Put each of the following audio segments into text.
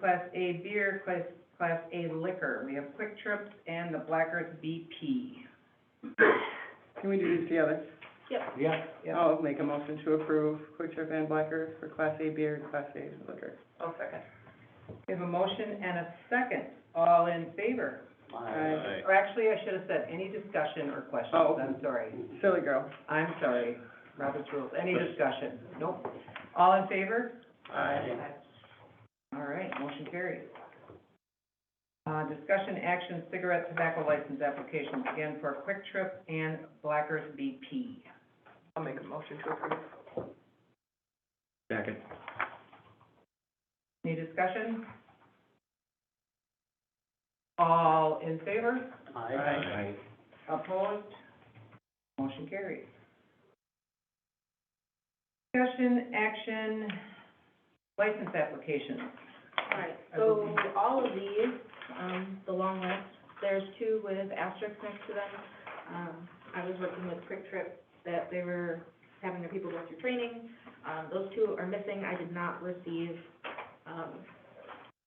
Class A beer, Class, Class A liquor. We have Quick Trip and the Black Earth BP. Can we do these together? Yeah. Yeah. I'll make a motion to approve Quick Trip and Black Earth for Class A beer and Class A liquor. I'll second. We have a motion and a second. All in favor? Aye. Or actually, I should have said, any discussion or questions? Oh. I'm sorry. Silly girl. I'm sorry. Robert's rules. Any discussion? Nope. All in favor? Aye. All right, motion carries. Uh, discussion action cigarette tobacco license applications, again for Quick Trip and Blackers BP. I'll make a motion to approve. Second. Any discussion? All in favor? Aye. Opposed? Motion carries. Discussion action license applications. Alright, so all of these, um, the long list, there's two with asterisks next to them. Um, I was working with Quick Trip that they were having their people go through training. Um, those two are missing. I did not receive, um,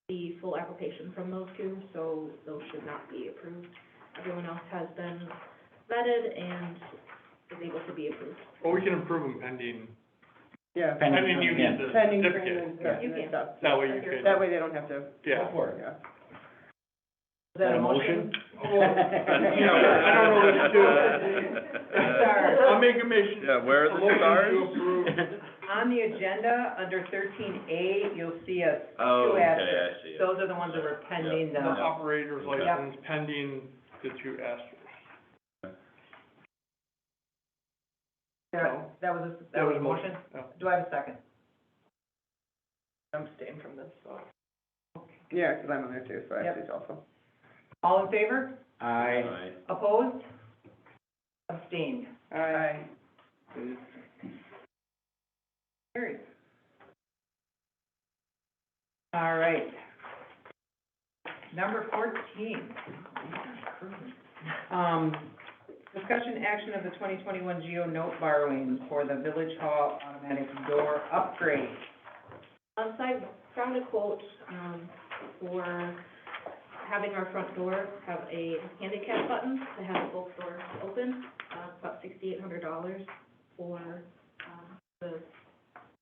the full application from those two, so those should not be approved. Everyone else has been vetted and is able to be approved. Well, we can approve them pending, Yeah. I mean, you need the Pending certificate. training and You can. stuff. That way you could, That way they don't have to, yeah. yeah. Is that a motion? I don't know what to Sorry. I'll make a motion. Yeah, where are the A motion to approve, stars? On the agenda, under thirteen A, you'll see us Oh, two okay, I asterisks. see it. Those are the ones that were pending the the, operator's Okay. license pending the two asterisks. that that was, a- that was a motion? yeah. Do I have a second? Yeah, because I'm on there too, so I have to also. All in favor? Aye. Opposed? Abstained? Aye. Carried. All right. Number fourteen. Um, discussion action of the twenty twenty-one Geo note borrowing for the Village Hall automatic door upgrade. Um, so I found a quote, um, for having our front door have a handicap button to have both doors open, uh, it's about sixty-eight hundred dollars for, um, the,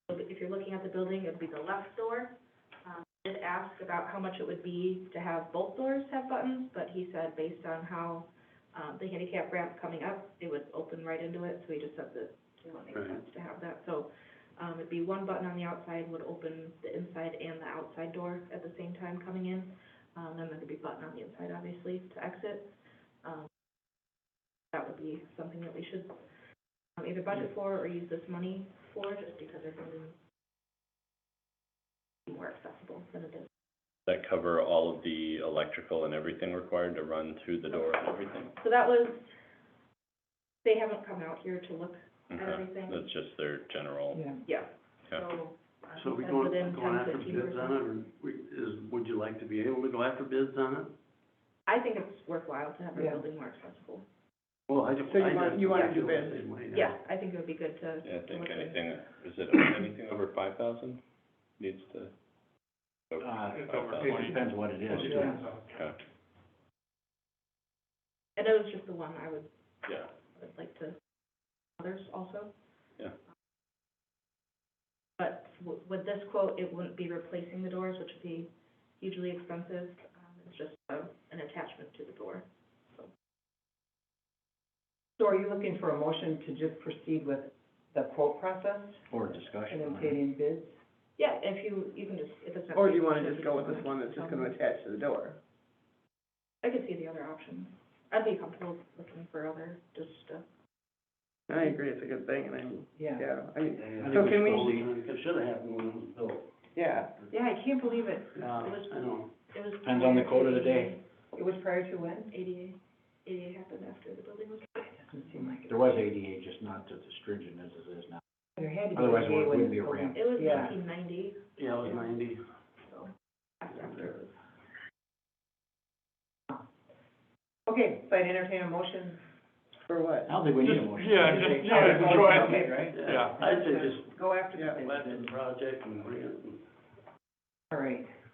if you're looking at the building, it'd be the left door. Um, I did ask about how much it would be to have both doors have buttons, but he said based on how, um, the handicap ramp coming up, it would open right into it, so he just said that it wouldn't make Right. sense to have that, so um, it'd be one button on the outside would open the inside and the outside door at the same time coming in. Um, then there could be a button on the inside, obviously, to exit. Um, that would be something that we should um, either budget for or use this money for, just because they're going to be more accessible than it is. that cover all of the electrical and everything required to run through the door and everything? So that was, they haven't come out here to look at Okay, everything. Uh-huh. that's just their general, Yeah. Yeah, okay. so. uh, So we that's going, within going 10, after 15%. bids on it, or we, is, would you like to be able to go after bids on it? I think it's worthwhile to have our Yeah. building more accessible. Well, I just. So you I want- just- you wanna I do feel bids? the same way now. Yeah, I think it would be good to. Yeah, I to think look at it. anything, is it anything over five thousand needs to? Uh, It's over Okay. it twenty. depends what it is. It too. depends on- Okay, And it was just the one I would, yeah, would like to, others also. Yeah. But w- with this quote, it wouldn't be replacing the doors, which would be hugely expensive. Um, It's just uh, an attachment to the door. So are you looking for a motion to just proceed with the quote process Or and discussion. then taking bids? Yeah, if you, you can just, if it's not. um, Or do you want to just go with this one that's just going to attach to the door? I could see the other options. I'd be comfortable looking for other, just, uh, I agree, it's a good thing, and I'm, Yeah. yeah, I, Yeah, I yeah. So think can we- should leave- It should have happened when it was built. yeah. Yeah, I can't believe it. uh, I know. it was. Depends on the code of the day. It was prior to when? ADA, ADA happened after the building was. Doesn't seem like it. There was ADA, just not as stringent as it is now. There had to be. a day Otherwise, it when wouldn't be a this building- ramp. It was Yeah. nineteen ninety, Yeah, it was ninety. so after, after it was. Okay, so I entertain a motion. For I what? don't think we need a Just- motion. yeah, just- yeah, just go ahead. Okay, Right? Yeah. I'd say just Go after Yeah. the bid. go after the project and bring it. All right.